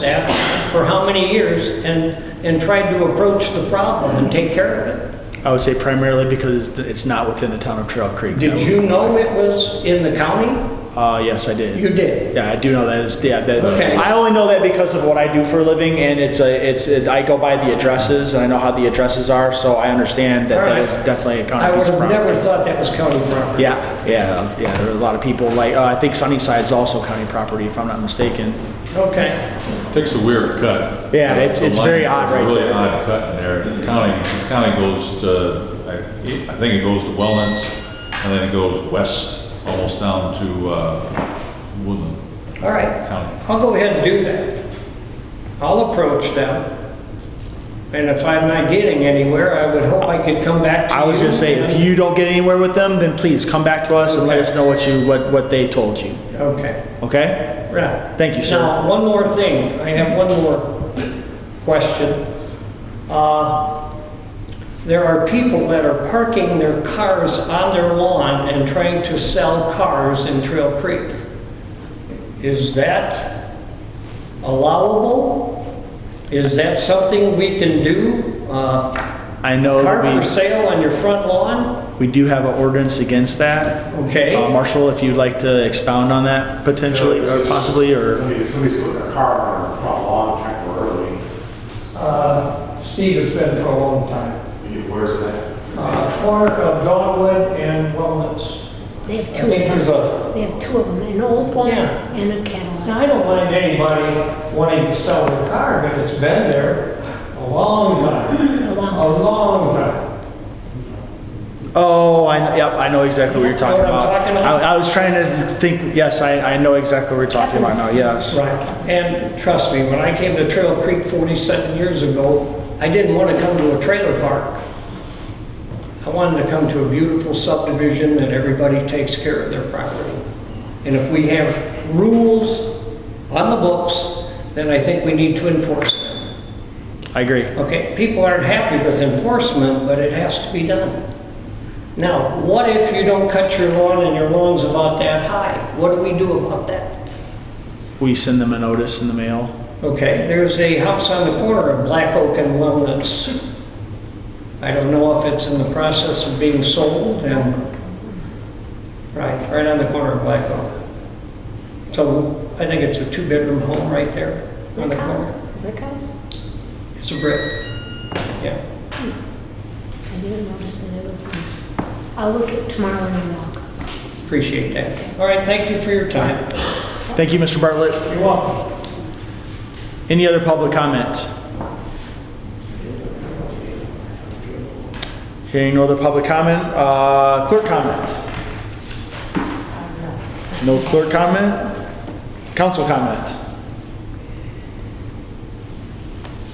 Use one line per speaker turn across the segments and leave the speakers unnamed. that for how many years and, and tried to approach the problem and take care of it.
I would say primarily because it's- it's not within the town of Trail Creek.
Did you know it was in the county?
Uh, yes, I did.
You did.
Yeah, I do know that is, yeah, that,
Okay.
I only know that because of what I do for a living and it's a, it's, it- I go by the addresses and I know how the addresses are, so I understand that that
Alright.
is definitely a
I
county
would
piece of
have
property.
never thought that was county property.
Yeah, yeah, yeah, there are a lot of people, like, uh, I think Sunnyside's also county property, if I'm not mistaken.
Okay,
Takes a weird cut.
Yeah, it's-
The
it's
line-
very odd right
Really
there.
odd cut in there. The County, the county goes to, I I think it goes to Wellens, and then it goes west, almost down to uh, Woodland
all right.
County.
I'll go ahead and do that. I'll approach them. And if I'm not getting anywhere, I would hope I could come back to you.
I was gonna say, if you don't get anywhere with them, then please come back to us and let
Okay.
us know what you, what, what they told you,
Okay.
okay?
Right.
Thank you, sir.
Now, one more thing, I have one more question. Uh, There are people that are parking their cars on their lawn and trying to sell cars in Trail Creek. Is that allowable? Is that something we can do? Uh,
I know
Car
that
for
we,
sale on your front lawn?
we do have an ordinance against that.
Okay.
Uh, Marshall, if you'd like to expound on that potentially,
Yeah,
or
it's-
possibly, or?
I mean, if somebody's putting their car on their front lawn temporarily,
Uh, Steve has been for a long time.
I mean, where's that?
Uh, Corner of Dogwood and Wellness.
They have
I
two,
think there's a,
they have two of them, an old one
Yeah.
and a Cadillac.
Now, I don't mind anybody wanting to sell their car, but it's been there a long time,
A
a
lot.
long time.
Oh, I, kn- yep, I know exactly what you're talking
Know what I'm
about.
talking about?
I, I was trying to think, yes, I, I know exactly what you're talking about now, yes.
Right, and trust me, when I came to Trail Creek 47 years ago, I didn't want to come to a trailer park. I wanted to come to a beautiful subdivision that everybody takes care of their property. And if we have rules on the books, then I think we need to enforce them.
I agree.
Okay, people aren't happy with enforcement, but it has to be done. Now, what if you don't cut your lawn and your lawn's about that high? What do we do about that?
We send them a notice in the mail.
Okay, there's a house on the corner of Black Oak and Walnuts. I don't know if it's in the process of being sold and, right, right on the corner of Black Oak. So I think it's a two-bedroom home right there on the
Brick house,
corner.
brick house?
It's a brick. Yeah,
I didn't notice that it was on. I'll look at tomorrow when you walk.
appreciate that. All right, thank you for your time.
Thank you, Mr. Bartlett.
You're welcome.
Any other public comment? Hearing no other public comment, uh, clerk comment? No clerk comment? Council comment?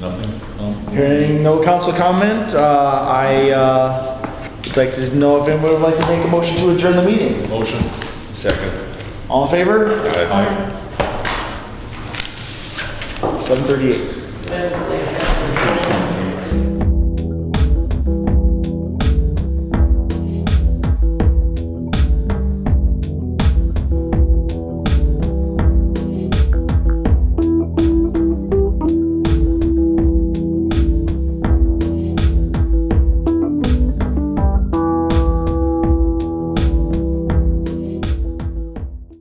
Nothing? No?
Hearing no council comment, uh, I, uh, would like to know if anyone would like to make a motion to adjourn the meeting.
Motion?
All in favor? Seven thirty-eight.
And-